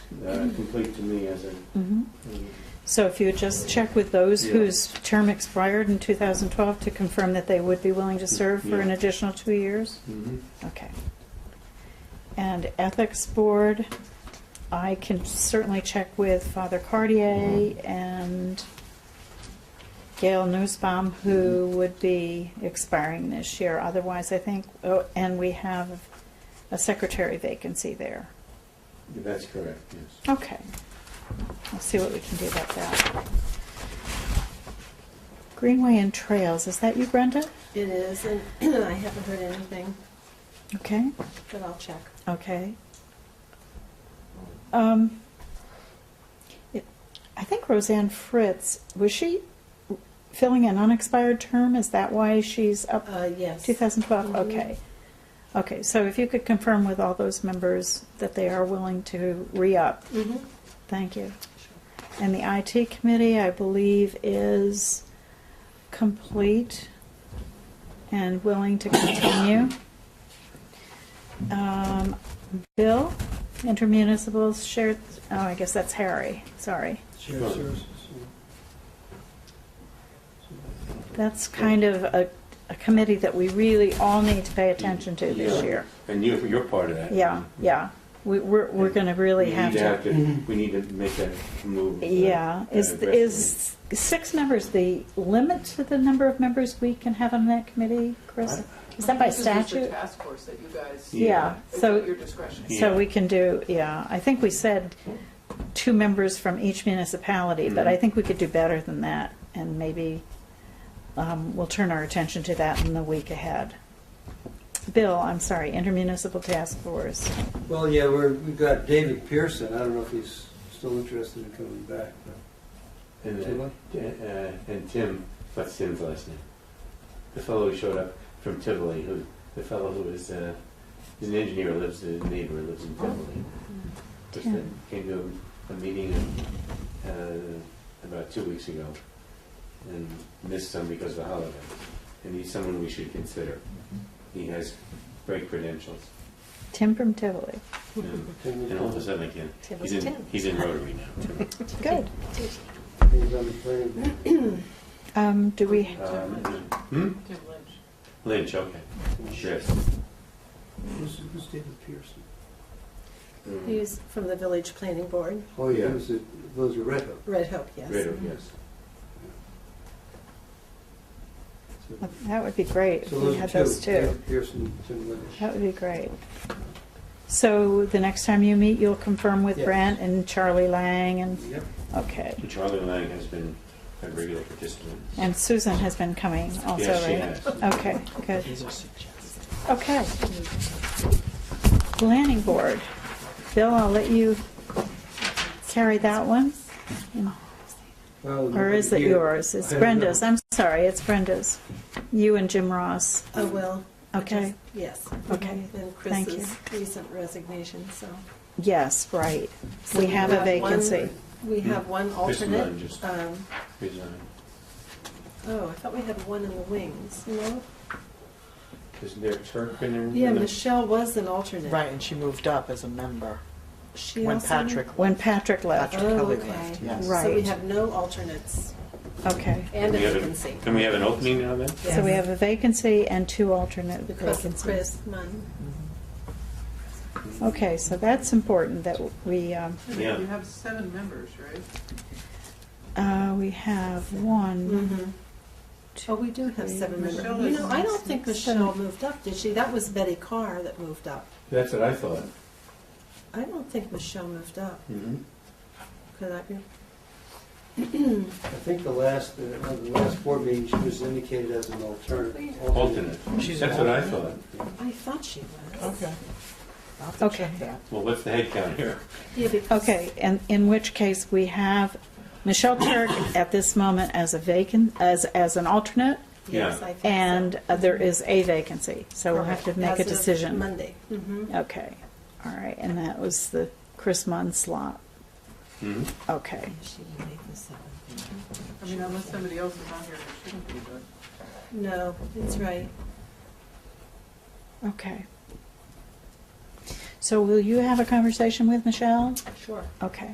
uh, Mm-hmm. complete to me as a, Mhm. So if you would just check with those Yeah. whose term expired in 2012 to confirm that they would be willing to serve for an Yeah. additional two years? Mhm. Okay. And Ethics Board, I can certainly check with Father Cartier Mm-hmm. and Gail Newsbaum, who Mm-hmm. would be expiring this year. Otherwise, I think, oh, and we have a secretary vacancy there. that's correct, yes. Okay. We'll see what we can do about that. Greenway and Trails, is that you, Brenda? It is, and I haven't heard anything, Okay, but I'll check. okay. Um, it- I think Roseanne Fritz, was she filling an unexpired term? Is that why she's up Uh, yes. 2012? Mhm. Okay. Okay, so if you could confirm with all those members that they are willing to re-up, Mhm. thank you. And the IT committee, I believe, is complete and willing to continue. Um, Bill, intermunicipals shared, oh, I guess that's Harry, sorry. Shared Sure. services. That's kind of a, a committee that we really all need to pay attention to this Yeah. year. And you, you're part of that. Yeah, yeah, we, we're, we're gonna We really need have to have to. to, we need to make that move. uh, Yeah, is, aggressively. is six members the limit to the number of members we can have on that committee, Chris? Is that by This the statute? task force that you guys, Yeah. Yeah, it's at so, your discretion. so we can do, yeah, I think we said two members from each municipality, but I Mhm. think we could do better than that, and maybe um, we'll turn our attention to that in the week ahead. Bill, I'm sorry, intermunicipal task force. Well, yeah, we're, we've got David Pearson, I don't know if he's still interested in coming back, but. And, uh, uh, and Tim, what's Tim's last name? The fellow who showed up from Tivoli, who, the fellow who is, uh, he's an engineer, lives, his neighbor lives in Tivoli. Mm. Just Tim. that Came to a meeting, uh, about two weeks ago and missed some because of the holiday. And he's someone we should consider. He has great credentials. Tim from Tivoli. And and all of a sudden I can, Tim he's is in, Tim. he's in Rotary now. Good. He's on the plane. Um, do we, Um, Hmm? Tim Lynch. Lynch, okay. Yes. Who's, who's David Pearson? Mm. He's from the Village Planning Board, Oh, yeah, he was a, was a Red Hook. Red Hope, yes. Ritter, yes. So- that would be great if So we those had two, those two. David Pearson, Tim Lynch. That would be great. So the next time you meet, you'll confirm with Yes. Brent and Charlie Lang and, Yep, okay. Charlie Lang has been a regular participant. And Susan has been coming also, Yes, she right? has. Okay, good. Okay. Planning Board. Bill, I'll let you carry that one. Well, Or is it you- yours? It's I don't Brenda's. know. I'm sorry, it's Brenda's. You and Jim Ross. Uh, I will. Okay. Yes. Okay. And Thank you. Chris's recent resignation, so. Yes, right. So We have a one- vacancy. We have one Just alternate. mine, just- Um, Resigned. Oh, I thought we had one in the wings, no? Isn't there Turk in there? Yeah, Michelle was an alternate. Right, and she moved up as a member She when also- Patrick, When Patrick left. Patrick Oh, Kelly okay. left, yes. So we Right. have no alternates Okay. and a We have a- vacancy. Can we have an opening now then? So we have a vacancy and two alternate Because of vacancies. Chris Munn. Okay, so that's important that we, um, Yeah. You have seven members, right? uh, we have one, Oh, we do have seven members. Michelle You is- know, I don't think Michelle moved up, did she? That was Betty Carr that moved up. That's what I thought. I don't think Michelle moved up. Mm-hmm. Could I be? I think the last, uh, the last board meeting, she was indicated as an alternate. Alternate. She's That's an what I thought. I thought she was. Okay. I'll have to Okay. check that. Well, what's the head count here? Yeah, because. okay, and in which case we have Michelle Turk at this moment as a vacant, as, as an alternate, Yes, Yeah. I think so. and uh, there is a vacancy, so we'll have to Correct. make a As of decision. Mm-hmm. Monday. Mhm. Okay, all right, and that was the Chris Munn slot, Mhm. okay. She didn't make the seventh. I mean, unless somebody else is on here, it shouldn't be, but. No, that's right. Okay. So will you have a conversation with Michelle? Sure. Okay.